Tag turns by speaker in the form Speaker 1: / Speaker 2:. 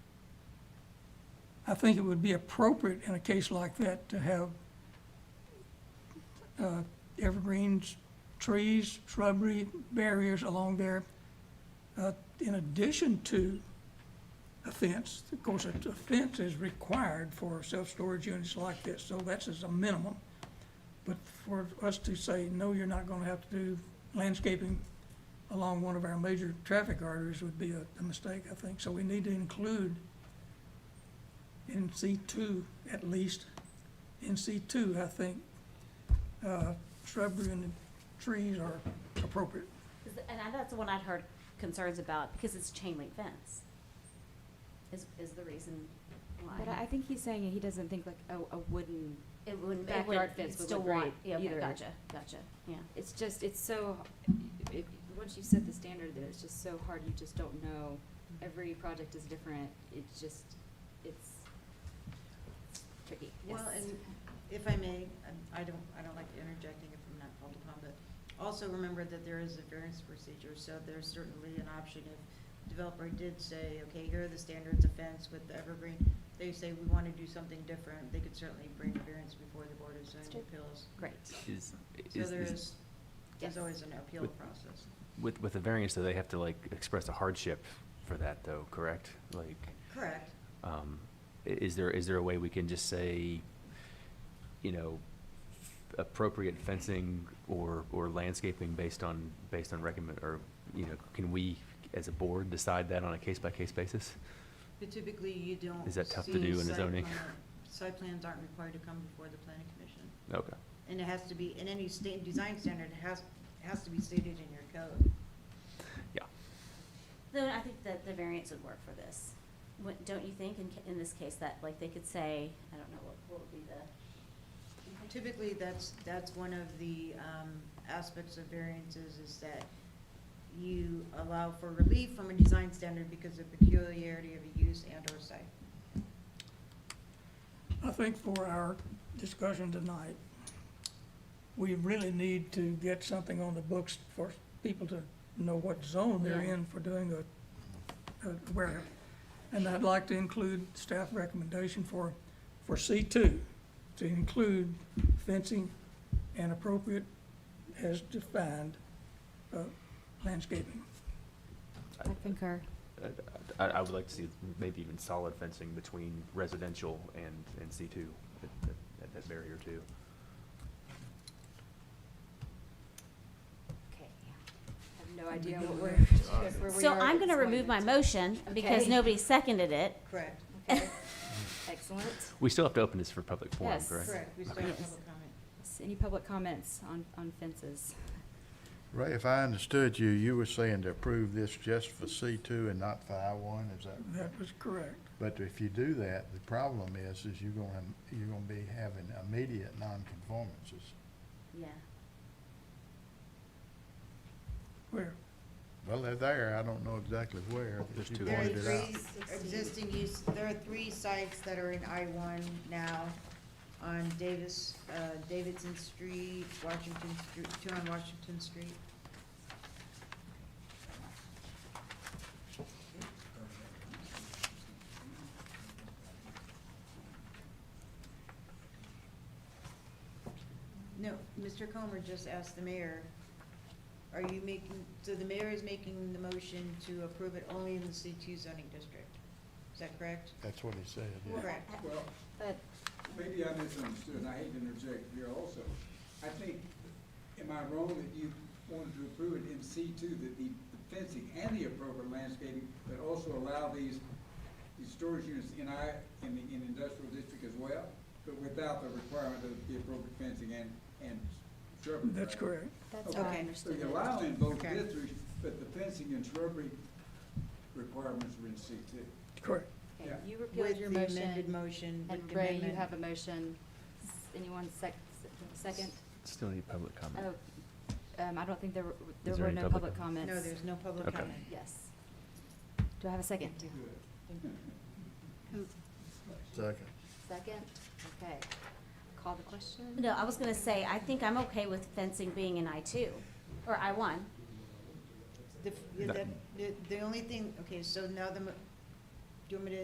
Speaker 1: I think it would be appropriate in a case like that to have uh, evergreens, trees, shrubbery, barriers along there, uh, in addition to a fence. Of course, a a fence is required for self-storage units like this, so that's as a minimum. But for us to say, no, you're not gonna have to do landscaping along one of our major traffic arteries would be a, a mistake, I think. So we need to include in C two, at least, in C two, I think, uh, shrubbery and trees are appropriate.
Speaker 2: 'Cause th- And I- that's the one I'd heard concerns about, because it's chain link fence, is, is the reason
Speaker 3: But I I
Speaker 2: why.
Speaker 3: think he's saying he doesn't think like a, a wooden,
Speaker 2: It wouldn't, it
Speaker 3: Backyard
Speaker 2: would,
Speaker 3: fence
Speaker 2: you'd
Speaker 3: would
Speaker 2: still
Speaker 3: look great
Speaker 2: want, yeah, okay,
Speaker 3: either.
Speaker 2: gotcha, gotcha, yeah.
Speaker 3: it's just, it's so, if, once you set the standard there, it's just so hard, you just don't know. Every project is different, it's just, it's tricky.
Speaker 4: Well, and if I may, um, I don't, I don't like interjecting if I'm not called upon, but also remember that there is a variance procedure, so there's certainly an option if developer did say, okay, here are the standards of fence with the evergreen, they say we want to do something different, they could certainly bring a variance before the Board of
Speaker 3: true.
Speaker 4: Zoning Appeals.
Speaker 2: Great.
Speaker 5: Is,
Speaker 4: So
Speaker 5: is,
Speaker 4: there
Speaker 5: is-
Speaker 4: is, there's
Speaker 2: Yes.
Speaker 4: always an appeal
Speaker 5: With-
Speaker 4: process.
Speaker 5: with, with the variance, though, they have to like express a hardship for that though, correct? Like,
Speaker 4: Correct.
Speaker 5: um, i- is there, is there a way we can just say, you know, appropriate fencing or, or landscaping based on, based on recommend, or, you know, can we as a board decide that on a case-by-case basis?
Speaker 4: But typically, you don't.
Speaker 5: Is that tough to
Speaker 4: see
Speaker 5: do in a
Speaker 4: site
Speaker 5: zoning?
Speaker 4: plan- Site plans aren't required to come before the planning commission.
Speaker 5: Okay,
Speaker 4: And it has to be, in any state, design standard, it has, has to be stated in your code.
Speaker 5: yeah.
Speaker 2: Though I think that the variance would work for this. What, don't you think in, ca- in this case that, like, they could say, I don't know, what, what would be the?
Speaker 4: Typically, that's, that's one of the um, aspects of variances is that you allow for relief from a design standard because of peculiarity of a use and/or site.
Speaker 1: I think for our discussion tonight, we really need to get something on the books for people to know what zone they're
Speaker 2: Yeah.
Speaker 1: in for doing a, a warehouse. And I'd like to include staff recommendation for, for C two, to include fencing and appropriate as defined, uh, landscaping.
Speaker 5: I-
Speaker 3: concur.
Speaker 5: I- I, I would like to see maybe even solid fencing between residential and, and C two, at, at- at that barrier too.
Speaker 2: Okay.
Speaker 3: I have no idea what we're, where we
Speaker 2: So
Speaker 3: are
Speaker 2: I'm
Speaker 3: at
Speaker 2: gonna
Speaker 3: this
Speaker 2: remove my
Speaker 3: moment.
Speaker 2: motion because
Speaker 3: Okay.
Speaker 2: nobody seconded it.
Speaker 4: Correct.
Speaker 3: Okay. Excellent.
Speaker 5: We still have to open this for public forum,
Speaker 3: Yes.
Speaker 5: correct?
Speaker 4: Correct. We still have public comment.
Speaker 3: S- Any public comments on, on fences?
Speaker 6: Ray, if I understood you, you were saying to approve this just for C two and not for I one, is that?
Speaker 1: That was correct.
Speaker 6: But if you do that, the problem is, is you're gonna, you're gonna be having immediate nonconformances.
Speaker 2: Yeah.
Speaker 1: Where,
Speaker 6: Well, they're there, I don't know exactly where. but
Speaker 5: There's
Speaker 6: you
Speaker 5: two.
Speaker 4: There are
Speaker 6: pointed it out.
Speaker 4: three existing use, there are three sites that are in I one now on Davis, uh, Davidson Street, Washington Street, two on Washington Street. No, Mr. Comer just asked the mayor, are you making, so the mayor is making the motion to approve it only in the C two zoning district? Is that correct?
Speaker 6: That's what he said, yeah.
Speaker 4: Correct.
Speaker 7: Well,
Speaker 3: But
Speaker 7: maybe I misunderstood, and I hate to interject here also. I think, am I wrong that you wanted to approve it in C two, that the the fencing and the appropriate landscaping, but also allow these, these storage units in I, in the, in industrial district as well, but without the requirement of the appropriate fencing and, and shrubbery?
Speaker 1: that's
Speaker 7: right?
Speaker 1: correct.
Speaker 3: that's
Speaker 4: Okay.
Speaker 3: how I
Speaker 4: So
Speaker 7: So
Speaker 3: understood
Speaker 7: you
Speaker 3: it.
Speaker 7: allow in both
Speaker 4: Okay.
Speaker 7: districts, but the fencing and shrubbery requirements are in C two.
Speaker 1: Correct.
Speaker 3: Okay,
Speaker 7: yeah.
Speaker 3: You repealed your
Speaker 4: With the amended
Speaker 3: motion,
Speaker 4: motion. with
Speaker 3: and
Speaker 4: the
Speaker 3: Ray, you
Speaker 4: amendment.
Speaker 3: have a motion. S- Anyone sec, s- second?
Speaker 5: Still need public comment.
Speaker 3: Oh, um, I don't think there were, there
Speaker 5: Is there
Speaker 3: were no
Speaker 5: any public
Speaker 3: public
Speaker 5: comment?
Speaker 3: comments.
Speaker 4: No, there's no public
Speaker 5: Okay.
Speaker 4: comment.
Speaker 3: Yes. Do I have a second?
Speaker 7: Good.
Speaker 6: Second.
Speaker 3: Second, okay. Call the question?
Speaker 2: No, I was gonna say, I think I'm okay with fencing being in I two, or I one.
Speaker 4: The,
Speaker 5: That-
Speaker 4: the, the only thing, okay, so now the, mo- do you want me to